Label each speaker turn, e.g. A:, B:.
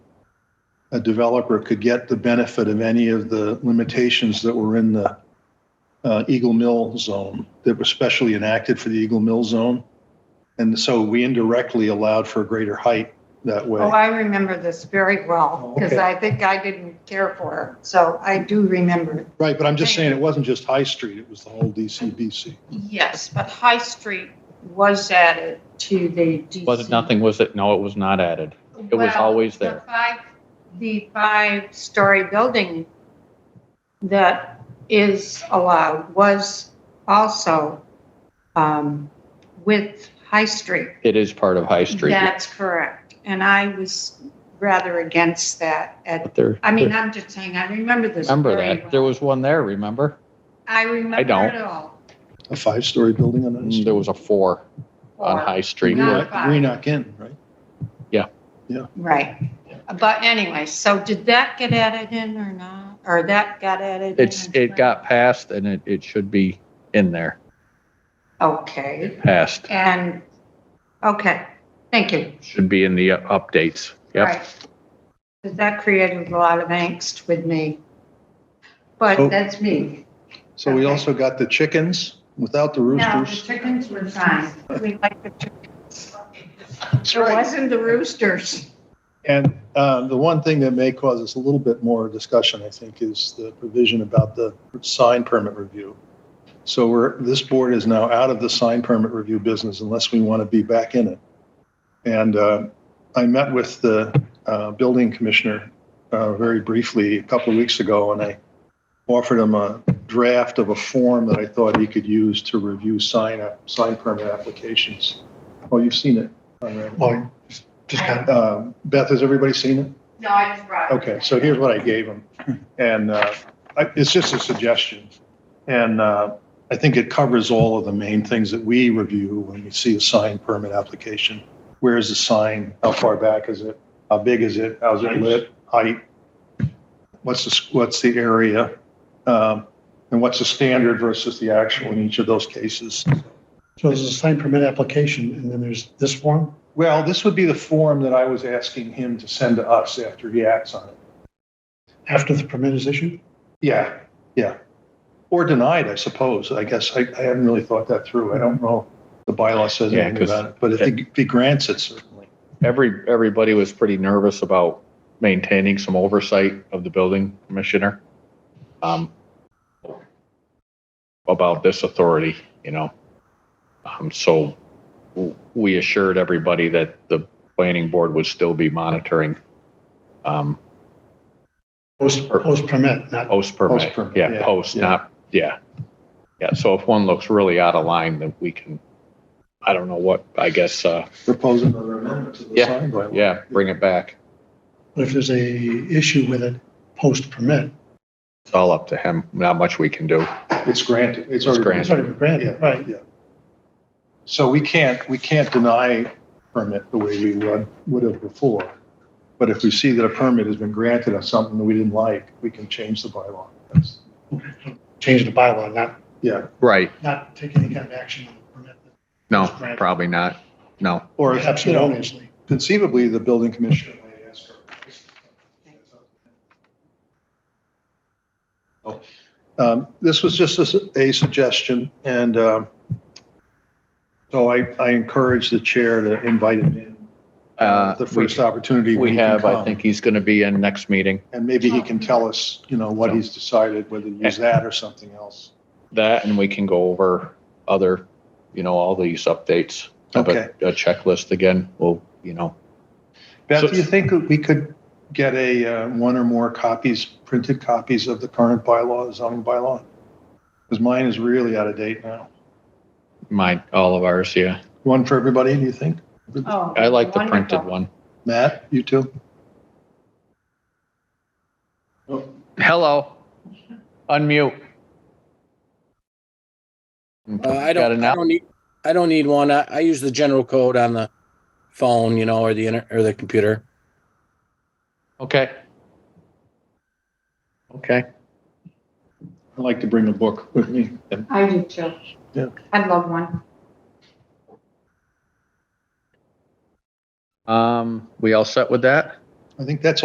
A: a developer could get the benefit of any of the limitations that were in the uh, Eagle Mill zone that were specially enacted for the Eagle Mill zone. And so we indirectly allowed for a greater height that way. Oh,
B: Oh, I remember this very well, because
A: Okay.
B: I think I didn't care for it, so I do remember. it.
A: Right, but I'm just saying it wasn't just High Street, it was the whole DCBC.
B: Yes, but High Street was added to the DC.
C: Was it nothing, was it? No, it was not added. It was
B: Well,
C: always
B: the
C: there.
B: five- The five-story building that is allowed was also um, with High Street.
C: It is part of High Street.
B: That's correct. And I was rather against that at,
C: But there,
B: I mean, I'm just saying, I remember this
C: remember
B: very
C: that, there
B: well.
C: was one there, remember?
B: I remember
C: don't.
B: it all.
A: A five-story building on High Street.
C: Mm, There was a four on
B: Or-
C: High Street.
B: No.
A: Greenock-
B: five.
A: Greenock Inn, right?
B: Right. But anyway, so did that get added in or not? Or that got added? in
C: It's,
B: as
C: it
B: well?
C: got passed and it, it should be in there,
B: Okay,
C: passed,
B: and, okay, thank you.
C: should be in the updates. Yep.
B: Right. 'Cause That created a lot of angst with me.
A: So-
C: Oh.
B: But that's me.
A: So we
B: Okay.
A: also got the chickens without the
B: No, the
A: roosters.
B: chickens were fine. We liked the chickens.
A: That's
B: It wasn't the roosters.
A: And um, the one thing that may cause us a little bit more discussion, I think, is the provision about the sign permit review. So we're, this board is now out of the sign permit review business unless we want to be back in it. And uh, I met with the uh, building commissioner uh, very briefly a couple of weeks ago, and I offered him a draft of a form that I thought he could use to review sign, sign permit applications. Oh, you've seen it. Conrad.
D: Well, just- just kind of,
A: Um, Beth, has everybody seen it?
B: No, I just brought.
A: Okay, so here's what I gave him, and uh, I- it's just a suggestion. And uh, I think it covers all of the main things that we review when we see a sign permit application. Where is the sign? How far back is it? How big is it? How's it lit? Height? What's the, s- what's the area? Um, And what's the standard versus the actual in each of those cases?
D: so there's a sign permit application, and then there's this form.
A: Well, this would be the form that I was asking him to send to us after he acts on it.
D: After the permit is issued,
A: Yeah, yeah. Or denied, I suppose. I guess I, I haven't really thought that through. I don't know. The bylaw says
C: Yeah,
A: anything
C: 'cause-
A: about it, but if he, if he grants it, certainly.
C: Every, everybody was pretty nervous about maintaining some oversight of the building commissioner. um, About this authority, you know? Um, so w- we assured everybody that the planning board would still be monitoring, um,
D: post, post permit, not,
C: Post permit,
A: Post-permit, yeah,
C: yeah, post,
A: yeah.
C: not, yeah. Yeah, so if one looks really out of line, then we can, I don't know what, I guess, uh,
A: Propose another amendment to the
C: Yeah,
A: sign bylaw.
C: yeah, bring it back.
D: but if there's a issue with it, post permit,
C: It's all up to him, not much we can do.
A: It's granted. It's
C: It's
A: already.
D: it's already been
A: Yeah.
D: granted, right?
A: Yeah. So we can't, we can't deny permit the way we would, would have before. But if we see that a permit has been granted on something that we didn't like, we can change the bylaw. That's-
D: Change the bylaw, not,
A: Yeah,
C: Right,
D: not take any kind of action on the permit.
C: no,
D: Just grant it.
C: probably not, no.
A: or, you know,
D: Absolutely.
A: conceivably, the building commissioner might ask for. Um, This was just a s- a suggestion, and um, so I, I encourage the chair to invite him in
C: Uh,
A: uh, the
C: we-
A: first opportunity. when
C: We
A: he can
C: have, I
A: come.
C: think he's going to be in next meeting.
A: And maybe he can tell us, you know, what he's decided, whether to use that or something else.
C: That, and we can go over other, you know, all these updates. Have a- A checklist again, well, you know,
A: Beth,
C: So-
A: do you think that we could get a, uh, one or more copies, printed copies of the current bylaw, zoning bylaw? Because mine is really out of date now.
C: mine, all of ours, yeah.
A: One for everybody, do you think?
B: Oh,
C: I like the
B: wonderful.
C: printed one.
A: Matt, you too?
C: Hello. Unmute.
E: Uh, I
C: Got it
E: don't, I
C: now?
E: don't need, I don't need one. I, I use the general code on the phone, you know, or the inter, or the computer.
C: Okay. Okay.
A: I'd like to bring a book with me. And
B: I do too.
A: Yeah.
B: I'd love one.
C: Um, we all set with that?
A: I think that's